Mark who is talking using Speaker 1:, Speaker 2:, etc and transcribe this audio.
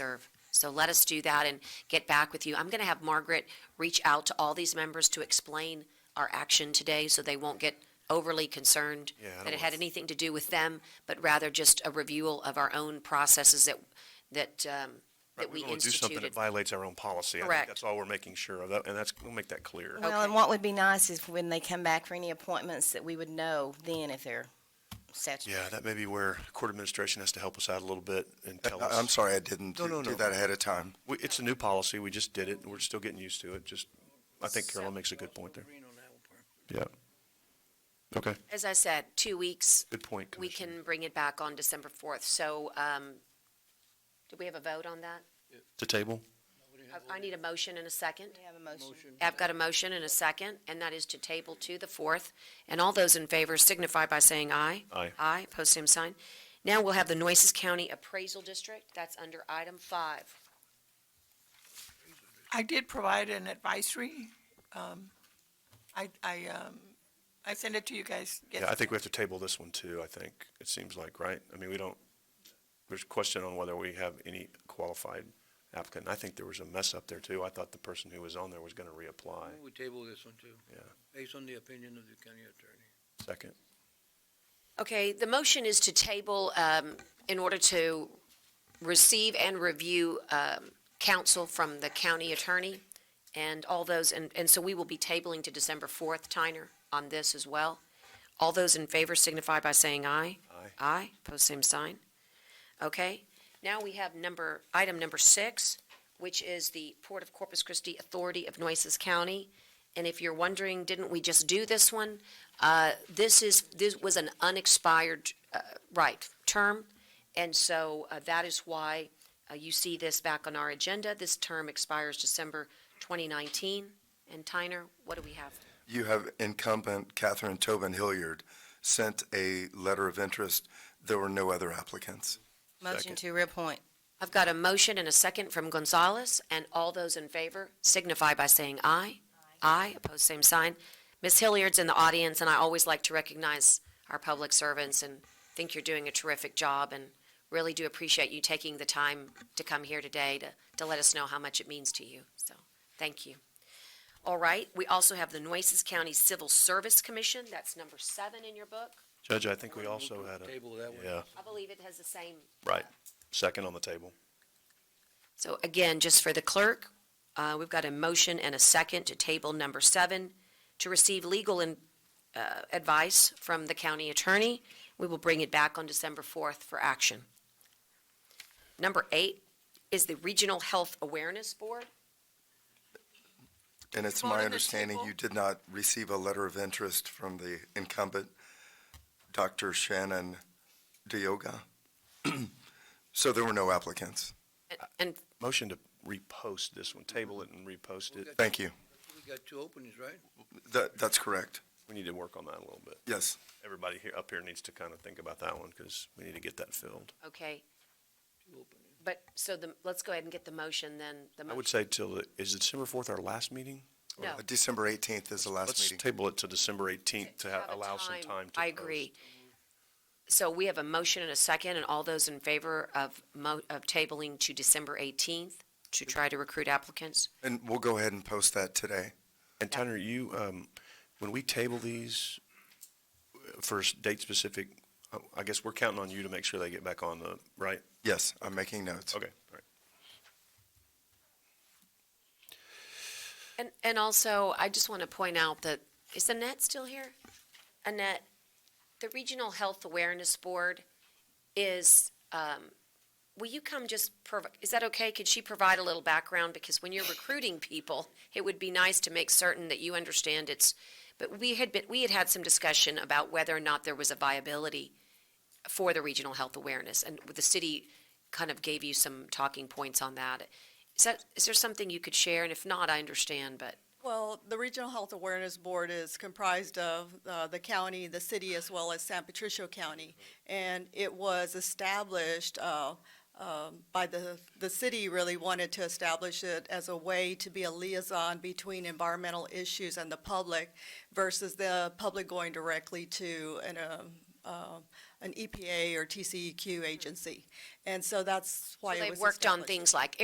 Speaker 1: So let us do that and get back with you. I'm going to have Margaret reach out to all these members to explain our action today so they won't get overly concerned
Speaker 2: Yeah, I don't
Speaker 1: that it
Speaker 2: want-
Speaker 1: had anything to do with them, but rather just a review of our own processes that, that, um,
Speaker 2: Right,
Speaker 1: that we
Speaker 2: wanna do something
Speaker 1: instituted.
Speaker 2: that violates our own policy. I think
Speaker 1: Correct.
Speaker 2: That's all we're making sure of, that- and that's, we'll make that clear.
Speaker 3: Well, and
Speaker 1: Okay.
Speaker 3: what would be nice is when they come back for any appointments that we would know then if they're statutory.
Speaker 2: Yeah, that may be where court administration has to help us out a little bit and tell
Speaker 4: I- I'm
Speaker 2: us.
Speaker 4: sorry I didn't
Speaker 2: No, no,
Speaker 4: do
Speaker 2: no.
Speaker 4: do that ahead of time.
Speaker 2: We- It's a new policy, we just did it, and we're still getting used to it, just, I think Carolyn makes a good point there. Yeah. Okay,
Speaker 1: As I said, two weeks,
Speaker 2: good point,
Speaker 1: we
Speaker 2: Commissioner.
Speaker 1: can bring it back on December 4th. So, um, did we have a vote on that?
Speaker 2: To table?
Speaker 1: I I need a motion and a second.
Speaker 3: We have a motion.
Speaker 1: I've got a motion and a second, and that is to table to the fourth. And all those in favor signify by saying aye.
Speaker 2: Aye.
Speaker 1: Aye, post same sign. Now we'll have the Nueces County Appraisal District. That's under item five.
Speaker 5: I did provide an advisory. Um, I, I, um, I sent it to you guys.
Speaker 2: Yeah, I
Speaker 5: yes-
Speaker 2: think we have to table this one too, I think, it seems like, right? I mean, we don't, there's a question on whether we have any qualified applicant. And I think there was a mess up there too. I thought the person who was on there was gonna reapply.
Speaker 6: We table this one too.
Speaker 2: Yeah.
Speaker 6: Based on the opinion of the county attorney.
Speaker 2: Second.
Speaker 1: Okay, the motion is to table um, in order to receive and review um, counsel from the county attorney and all those, and, and so we will be tabling to December 4th, Tyner, on this as well. All those in favor signify by saying aye.
Speaker 2: Aye.
Speaker 1: Aye, pose same sign. Okay, now we have number, item number six, which is the Port of Corpus Christi Authority of Nueces County. And if you're wondering, didn't we just do this one? Uh, This is, this was an unexpired, uh, right, term, and so uh, that is why uh, you see this back on our agenda. This term expires December 2019. And Tyner, what do we have?
Speaker 4: You have incumbent Catherine Tobin Hilliard sent a letter of interest. There were no other applicants.
Speaker 3: Motion to reappoint.
Speaker 1: I've got a motion and a second from Gonzalez, and all those in favor signify by saying aye. Aye, opposed, same sign. Ms. Hilliard's in the audience, and I always like to recognize our public servants and think you're doing a terrific job and really do appreciate you taking the time to come here today to, to let us know how much it means to you. So, thank you. All right, we also have the Nueces County Civil Service Commission. That's number seven in your book.
Speaker 2: Judge, I think we
Speaker 6: Move
Speaker 2: also
Speaker 6: to
Speaker 2: had a,
Speaker 6: Table that one.
Speaker 2: yeah,
Speaker 1: I believe it has the same
Speaker 2: right, second on the table.
Speaker 1: So again, just for the clerk, uh, we've got a motion and a second to table number seven, to receive legal and, uh, advice from the county attorney. We will bring it back on December fourth for action. Number eight is the Regional Health Awareness Board.
Speaker 4: And it's
Speaker 5: Vote on
Speaker 4: my
Speaker 5: the
Speaker 4: understanding
Speaker 5: table.
Speaker 4: you did not receive a letter of interest from the incumbent, Dr. Shannon Dioga. So there were no applicants.
Speaker 1: And- And
Speaker 2: Motion to repost this one, table it and repost it.
Speaker 4: Thank you.
Speaker 6: We got two openings, right?
Speaker 4: That, that's correct.
Speaker 2: We need to work on that a little bit.
Speaker 4: Yes.
Speaker 2: Everybody here, up here needs to kind of think about that one because we need to get that filled.
Speaker 1: Okay,
Speaker 6: Two openings.
Speaker 1: but, so the, let's go ahead and get the motion then. The
Speaker 2: I would
Speaker 1: motion-
Speaker 2: say till, the- is December fourth our last meeting?
Speaker 1: No.
Speaker 4: Uh, December 18th is the last
Speaker 2: Let's
Speaker 4: meeting.
Speaker 2: table it to December eighteenth to ha-
Speaker 1: a
Speaker 2: allow some time to.
Speaker 1: I
Speaker 2: post.
Speaker 1: agree. So we have a motion and a second, and all those in favor of mo, of tabling to December eighteenth to try to recruit applicants?
Speaker 4: And we'll go ahead and post that today.
Speaker 2: And Tanner, you, um, when we table these uh, for s- date specific, uh, I guess we're counting on you to make sure they get back on the, right?
Speaker 4: Yes, I'm making notes.
Speaker 2: Okay, all right.
Speaker 1: And, and also, I just want to point out that, is Annette still here? Annette, the Regional Health Awareness Board is, um, will you come just, prov- is that okay? Could she provide a little background? Because when you're recruiting people, it would be nice to make certain that you understand it's, but we had been, we had had some discussion about whether or not there was a viability for the Regional Health Awareness, and the city kind of gave you some talking points on that. Is that, is there something you could share? And if not, I understand, but
Speaker 7: Well, the Regional Health Awareness Board is comprised of uh, the county, the city, as well as San Patricio County. And it was established uh, um, by the, the city really wanted to establish it as a way to be a liaison between environmental issues and the public versus the public going directly to an, um, uh, an EPA or TCEQ E agency. And so that's why
Speaker 1: so
Speaker 7: it was
Speaker 1: they've worked on
Speaker 7: established.
Speaker 1: things like